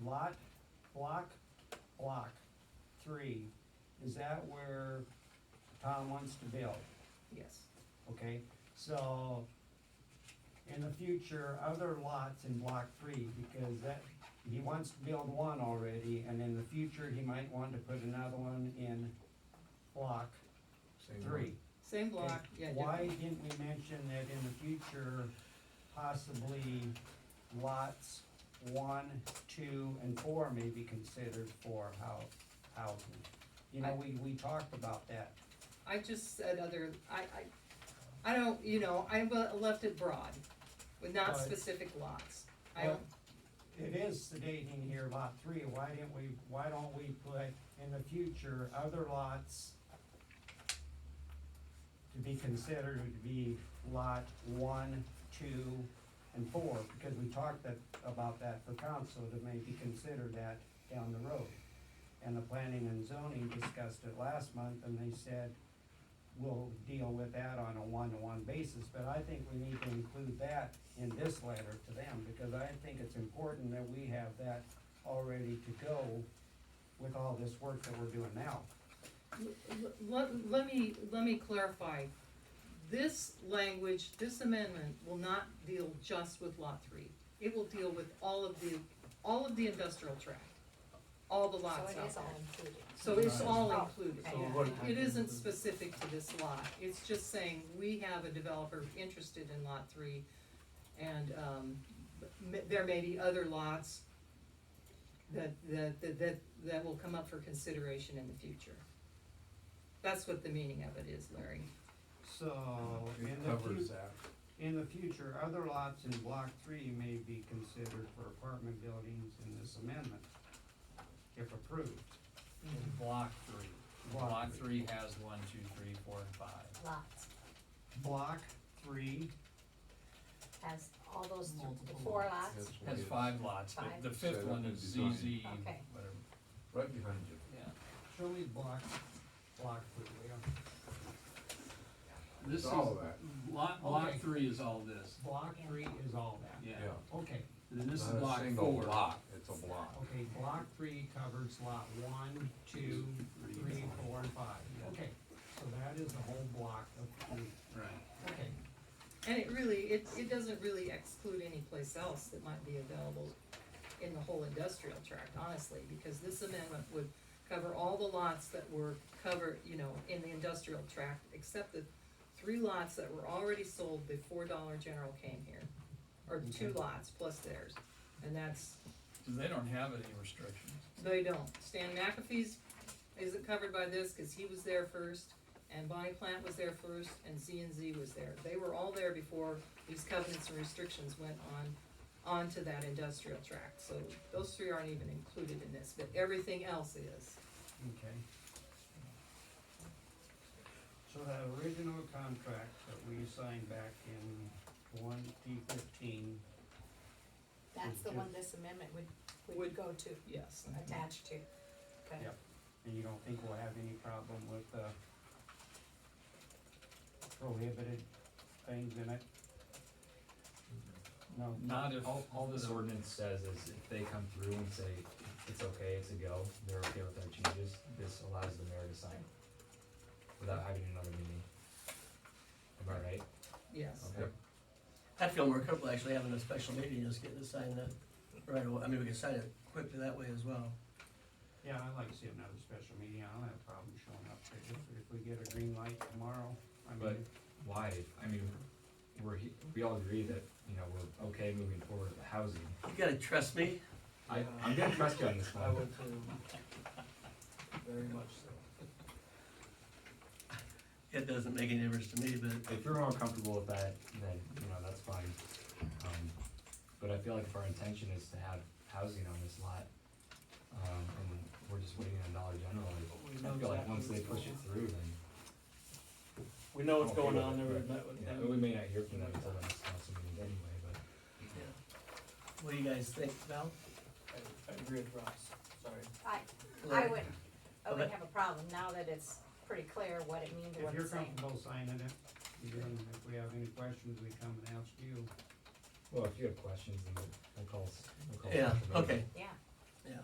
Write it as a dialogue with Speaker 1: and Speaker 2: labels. Speaker 1: lot, block, block three, is that where Tom wants to build?
Speaker 2: Yes,
Speaker 1: Okay, so in the future, other lots in block three, because that, he wants to build one already, and in the future, he might want to put another one in block
Speaker 3: Same
Speaker 1: three.
Speaker 3: one.
Speaker 2: same block, yeah.
Speaker 1: Okay,
Speaker 2: different-
Speaker 1: Why didn't we mention that in the future, possibly lots one, two, and four may be considered for hou- housing? You know, we, we talked about that.
Speaker 2: I just said other, I, I, I don't, you know, I le- left it broad, with not
Speaker 1: Right.
Speaker 2: specific lots. I
Speaker 1: Well,
Speaker 2: don't,
Speaker 1: It is stating here lot three, why didn't we, why don't we put in the future other lots to be considered would be lot one, two, and four, because we talked that, about that for council to maybe consider that down the road. And the planning and zoning discussed it last month, and they said, we'll deal with that on a one-to-one basis, but I think we need to include that in this letter to them, because I think it's important that we have that already to go with all this work that we're doing now.
Speaker 2: l- let, let me, let me clarify. This language, this amendment will not deal just with lot three. It will deal with all of the, all of the industrial tract, all the
Speaker 4: So
Speaker 2: lots
Speaker 4: it
Speaker 2: out
Speaker 4: is
Speaker 2: there.
Speaker 4: all included.
Speaker 2: So it's
Speaker 3: Right.
Speaker 2: all
Speaker 4: Oh,
Speaker 2: included.
Speaker 4: So
Speaker 3: what-
Speaker 2: It isn't specific to this lot, it's just saying we have a developer interested in lot three, and, um, m- there may be other lots that, that, that- that, that will come up for consideration in the future. That's what the meaning of it is, Larry.
Speaker 1: So, in
Speaker 3: It
Speaker 1: the
Speaker 3: covers
Speaker 1: future,
Speaker 3: that.
Speaker 1: in the future, other lots in block three may be considered for apartment buildings in this amendment, if approved.
Speaker 5: Block three.
Speaker 1: Block
Speaker 5: Block
Speaker 1: three.
Speaker 5: three has one, two, three, four, and five.
Speaker 4: Lots,
Speaker 1: Block three,
Speaker 4: has all those, th-
Speaker 5: Multiple
Speaker 4: four
Speaker 5: lots.
Speaker 4: lots,
Speaker 3: That's what
Speaker 5: Has
Speaker 3: it is.
Speaker 5: five lots, but
Speaker 4: Five.
Speaker 5: the fifth
Speaker 3: Set up
Speaker 5: one
Speaker 3: and
Speaker 5: is
Speaker 3: design.
Speaker 5: ZZ,
Speaker 4: Okay.
Speaker 5: whatever.
Speaker 3: Right behind you.
Speaker 5: Yeah.
Speaker 1: show me block, block three, we are,
Speaker 5: This is,
Speaker 3: all that.
Speaker 5: lot, block
Speaker 1: Okay.
Speaker 5: three is all this,
Speaker 1: block three is all that.
Speaker 5: yeah.
Speaker 3: Yeah.
Speaker 1: Okay,
Speaker 5: And then this is
Speaker 3: Not a
Speaker 5: block
Speaker 3: single
Speaker 5: four.
Speaker 3: block, It's a block.
Speaker 1: okay, block three covers lot one, two, three, four, and five, okay, so that is the whole block of three,
Speaker 5: Right.
Speaker 1: okay.
Speaker 2: And it really, it, it doesn't really exclude any place else that might be available in the whole industrial tract, honestly, because this amendment would cover all the lots that were covered, you know, in the industrial tract, except the three lots that were already sold before Dollar General came here, or two
Speaker 1: Okay.
Speaker 2: lots plus theirs, and that's,
Speaker 5: Cause they don't have any restrictions.
Speaker 2: they don't. Stan McAfee's isn't covered by this, cause he was there first, and Bonnie Plant was there first, and Z and Z was there. They were all there before these covenants and restrictions went on, onto that industrial tract, so those three aren't even included in this, but everything else is.
Speaker 1: Okay. So that original contract that we signed back in twenty fifteen,
Speaker 4: that's the one this amendment would, would
Speaker 2: Would-
Speaker 4: go to,
Speaker 2: Yes.
Speaker 4: attach to. Okay.
Speaker 1: Yep. and you don't think we'll have any problem with, uh, prohibited things in it? No,
Speaker 5: Not if.
Speaker 6: All, all this
Speaker 5: the-
Speaker 6: ordinance says is if they come through and say it's okay, it's a go, they're okay with our changes, this allows the mayor to sign without having another meeting. Am I right?
Speaker 2: Yes.
Speaker 6: Okay.
Speaker 7: I'd feel more comfortable actually having a special meeting, just getting it signed up right away. I mean, we can sign it quickly that way as well.
Speaker 1: yeah, I'd like to see another special meeting, I don't have a problem showing up there, if, if we get a green light tomorrow, I
Speaker 6: But
Speaker 1: mean,
Speaker 6: why? I mean, we're, he- we all agree that, you know, we're okay moving forward with housing.
Speaker 7: You gotta trust me.
Speaker 6: I, I'm gonna trust you on this
Speaker 8: I
Speaker 6: one.
Speaker 8: would too. Very much so.
Speaker 7: It doesn't make any difference to me, but
Speaker 6: If you're more comfortable with that, then, you know, that's fine. Um, but I feel like if our intention is to have housing on this lot, um, and we're just waiting on Dollar General, like,
Speaker 7: we
Speaker 6: I
Speaker 7: know
Speaker 6: feel like
Speaker 7: exactly
Speaker 6: once they
Speaker 7: what's
Speaker 6: push
Speaker 7: going
Speaker 6: it
Speaker 7: on.
Speaker 6: through, then,
Speaker 7: We know what's
Speaker 6: Okay
Speaker 7: going
Speaker 6: with
Speaker 7: on
Speaker 6: it,
Speaker 7: there, we
Speaker 6: right.
Speaker 7: met with
Speaker 6: yeah,
Speaker 7: them.
Speaker 6: we may not hear from them until the next council meeting anyway, but.
Speaker 7: Yeah. What do you guys think, Val?
Speaker 8: I, I agree with Ross, sorry.
Speaker 4: I, I
Speaker 7: Larry?
Speaker 4: would, I wouldn't have a problem now that it's pretty clear what it means or
Speaker 1: if
Speaker 4: what
Speaker 1: you're
Speaker 4: it's saying.
Speaker 1: comfortable signing it, then if we have any questions, we come and ask you.
Speaker 6: Well, if you have questions, then we'll we'll call, s- we'll call.
Speaker 7: Yeah,
Speaker 6: Sasha, but
Speaker 7: okay.
Speaker 4: Yeah,